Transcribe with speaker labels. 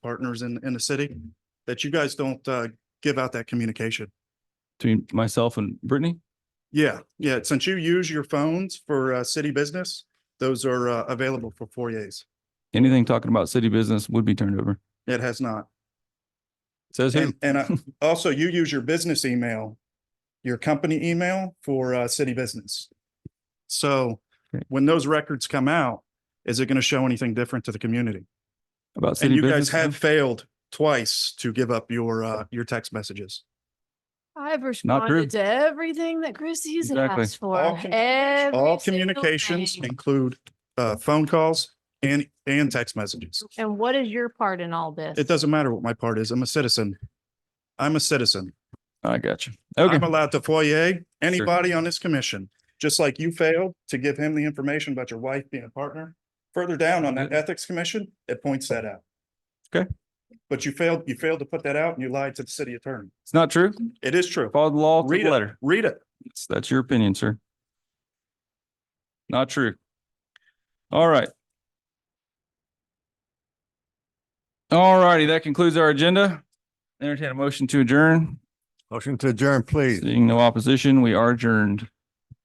Speaker 1: partners in, in the city, that you guys don't, uh, give out that communication.
Speaker 2: between myself and Brittany.
Speaker 1: Yeah, yeah, since you use your phones for, uh, city business, those are, uh, available for foyers.
Speaker 2: Anything talking about city business would be turned over.
Speaker 1: It has not.
Speaker 2: Says who?
Speaker 1: And, and I- also you use your business email, your company email for, uh, city business. So
Speaker 2: Great.
Speaker 1: when those records come out, is it going to show anything different to the community?
Speaker 2: About
Speaker 1: And
Speaker 2: city
Speaker 1: you guys
Speaker 2: business?
Speaker 1: have failed twice to give up your, uh, your text messages.
Speaker 3: I've
Speaker 2: true.
Speaker 3: responded to everything that Christie's had
Speaker 2: Exactly.
Speaker 3: asked for.
Speaker 1: All communications-
Speaker 3: every
Speaker 1: All
Speaker 3: single
Speaker 1: communications
Speaker 3: thing.
Speaker 1: include, uh, phone calls and, and text messages.
Speaker 3: And what is your part in all this?
Speaker 1: It doesn't matter what my part is. I'm a citizen. I'm a citizen.
Speaker 2: I got you.
Speaker 1: I'm
Speaker 2: Okay,
Speaker 1: allowed to foyer anybody on this commission, just like you failed to give him the information about your wife being a partner. Further down on that ethics commission, it points that out.
Speaker 2: Mm-hmm. Okay.
Speaker 1: But you failed, you failed to put that out and you lied to the city attorney.
Speaker 2: it's not true.
Speaker 1: It is true.
Speaker 2: Follow the law to
Speaker 1: Read
Speaker 2: the
Speaker 1: it,
Speaker 2: letter.
Speaker 1: read it.
Speaker 2: That's- That's your opinion, sir. Not true. All right. All righty, that concludes our agenda. Entertain a motion to adjourn.
Speaker 4: Motion to adjourn, please.
Speaker 2: Seeing no opposition, we are adjourned.